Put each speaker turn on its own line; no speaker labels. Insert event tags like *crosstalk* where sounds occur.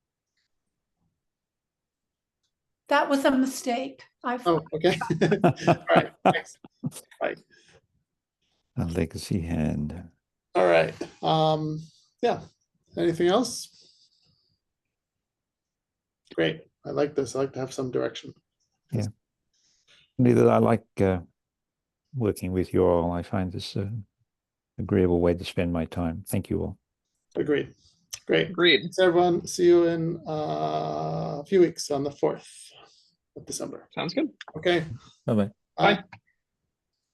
That was a mistake. I,
Oh, *laughs* okay. All right, thanks.
*laughs* A legacy hand.
All right, um, yeah, anything else? Great, I like this, I like to have some direction.
Neither I like uh, working with you all. I find this uh, agreeable way to spend my time. Thank you all.
Agreed, great.
Agreed.
Thanks, everyone, see you in uh, a few weeks on the fourth of December,
Sounds good.
okay?
Bye bye.
Bye.